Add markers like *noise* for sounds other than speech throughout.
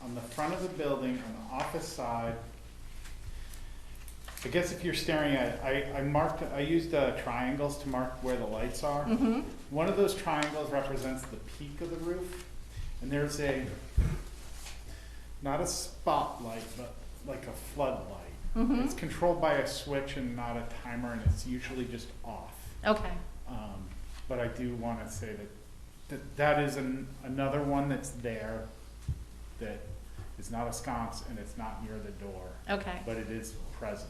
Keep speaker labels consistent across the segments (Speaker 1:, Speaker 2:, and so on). Speaker 1: on the front of the building, on the office side. I guess if you're staring at it, I, I marked, I used uh, triangles to mark where the lights are.
Speaker 2: Mm-hmm.
Speaker 1: One of those triangles represents the peak of the roof, and there's a, not a spotlight, but like a floodlight.
Speaker 2: mm-hmm.
Speaker 1: It's controlled by a switch and not a timer, and it's usually just off.
Speaker 2: Okay.
Speaker 1: Um, but I do want to say that, that that is an, another one that's there that is not a sconce and it's not near the door,
Speaker 2: Okay.
Speaker 1: but it is present.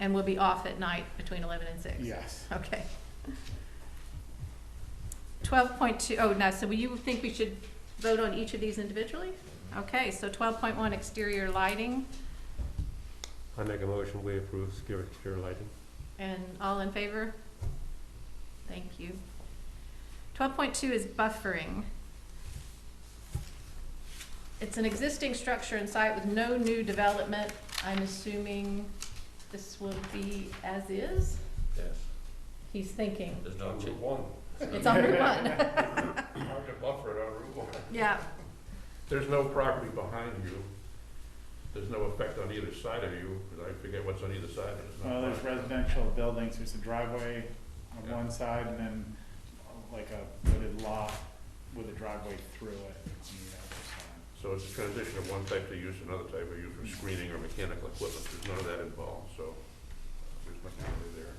Speaker 2: And we'll be off at night between eleven and six.
Speaker 1: Yes.
Speaker 2: Okay. Twelve point two, oh, no, so you think we should vote on each of these individually? Okay, so twelve point one, exterior lighting,
Speaker 3: I make a motion, we approve secure exterior lighting.
Speaker 2: and all in favor? Thank you. Twelve point two is buffering. It's an existing structure and site with no new development. I'm assuming this will be as is?
Speaker 4: Yes,
Speaker 2: He's thinking.
Speaker 4: there's no change.
Speaker 3: one.
Speaker 2: It's on Route One. *laughs*
Speaker 3: Hard to buffer it on Route one.
Speaker 2: Yeah,
Speaker 3: There's no property behind you. There's no effect on either side of you, 'cause I forget what's on either side, but it's not.
Speaker 1: Well, there's
Speaker 3: much.
Speaker 1: residential buildings, there's a driveway on
Speaker 3: Yeah.
Speaker 1: one side and then like a wooded lot with a driveway through it on
Speaker 3: So it's a transition of one type to use another type of use for screening or mechanical equipment. There's none of that involved, so uh, there's nothing really there.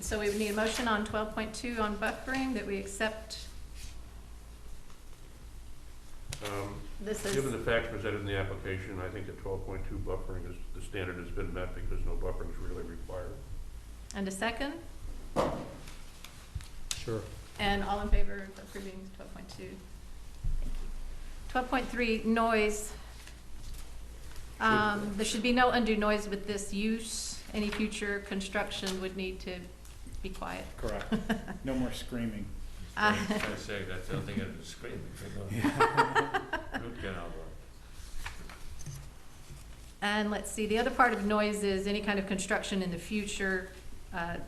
Speaker 2: so we would need a motion on twelve point two on buffering that we accept
Speaker 3: Um,
Speaker 2: this is,
Speaker 3: Given the facts presented in the application, I think that twelve point two buffering is, the standard has been met because no buffering is really required.
Speaker 2: and a second,
Speaker 4: Sure.
Speaker 2: and all in favor of approving twelve point two? Twelve point three, noise. Um, there should be no undue noise with this use. Any future construction would need to be quiet.
Speaker 1: either side. Correct, *laughs* no more screaming.
Speaker 2: Uh,
Speaker 4: I was gonna say, that's the only thing I'd scream if you *laughs* go. Root canal line.
Speaker 2: And let's see, the other part of noise is any kind of construction in the future uh,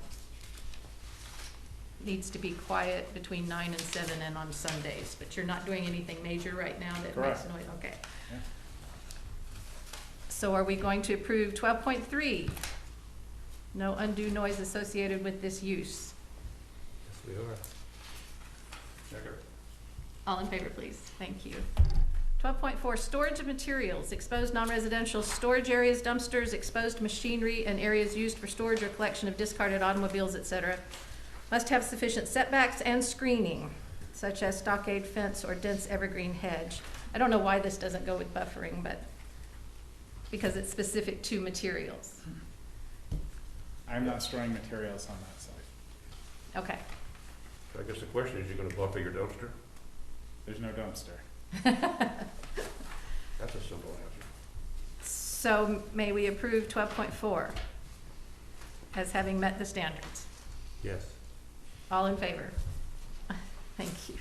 Speaker 2: needs to be quiet between nine and seven and on Sundays, but you're not doing anything major right now that makes
Speaker 1: Correct.
Speaker 2: noise, okay.
Speaker 1: Yeah.
Speaker 2: So are we going to approve twelve point three? No undue noise associated with this use.
Speaker 3: Yes, we are. Second.
Speaker 2: All in favor, please. Thank you. Twelve point four, storage of materials, exposed non-residential storage areas, dumpsters, exposed machinery, and areas used for storage or collection of discarded automobiles, et cetera, must have sufficient setbacks and screening, such as stockade fence or dense evergreen hedge. I don't know why this doesn't go with buffering, but, because it's specific to materials.
Speaker 1: I'm not storing materials on that side.
Speaker 2: Okay.
Speaker 3: I guess the question is, you gonna buffer your dumpster?
Speaker 1: There's no dumpster.
Speaker 3: That's a simple answer.
Speaker 2: So may we approve twelve point four as having met the standards?
Speaker 3: Yes.
Speaker 2: All in favor? *laughs* Thank you.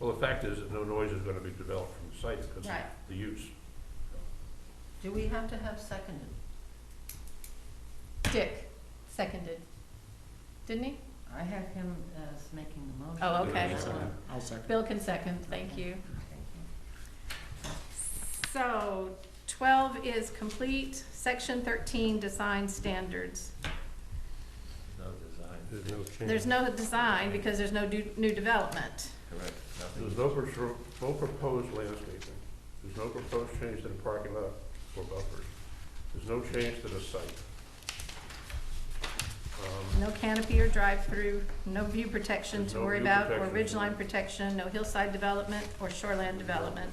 Speaker 3: Well, the fact is that no noise is gonna be developed from the site because of
Speaker 2: Right.
Speaker 3: the use.
Speaker 5: Do we have to have seconded?
Speaker 2: Dick seconded, didn't he?
Speaker 5: I have him as making the motion.
Speaker 2: Oh, okay.
Speaker 3: There's no-
Speaker 1: I'll second.
Speaker 2: Bill can second, thank you.
Speaker 5: Thank you.
Speaker 2: So twelve is complete, section thirteen, design standards.
Speaker 4: no design,
Speaker 3: There's no change.
Speaker 2: There's no design because there's no do- new development.
Speaker 4: correct,
Speaker 3: There's
Speaker 4: nothing.
Speaker 3: no pro- no proposed landscaping. There's no proposed change to the parking lot or buffers. There's no change to the site. Um,
Speaker 2: No canopy or drive-through, no view protection
Speaker 3: There's
Speaker 2: to
Speaker 3: no
Speaker 2: worry
Speaker 3: view
Speaker 2: about, or
Speaker 3: protection.
Speaker 2: ridgeline protection, no hillside development or shoreland development.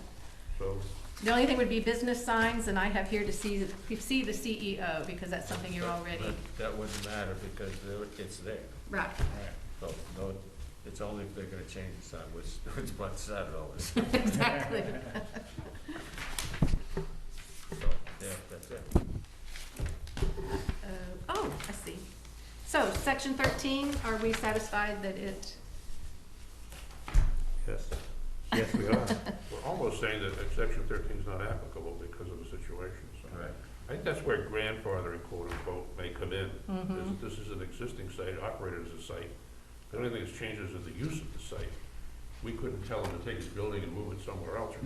Speaker 3: So,
Speaker 2: The only thing would be business signs, and I have here to see, see the CEO, because that's something you're
Speaker 4: But-
Speaker 2: already,
Speaker 4: but That wouldn't matter because there- it's there,
Speaker 2: right.
Speaker 4: so, no, it's only if they're gonna change the sign, which, *laughs* which what side it all is, so,
Speaker 2: Exactly.
Speaker 4: yeah, that's it.
Speaker 2: Uh, Oh, I see. So, section thirteen, are we satisfied that it,
Speaker 3: yes. Yes, we are. *laughs* We're almost saying that section thirteen is not applicable because of the situation, so.
Speaker 4: Correct.
Speaker 3: I think that's where grandfathering quote unquote may come in. is that This is an existing site, operated as a site. The only thing that's changed is the use of the site. We couldn't tell them to take his building and move it somewhere else or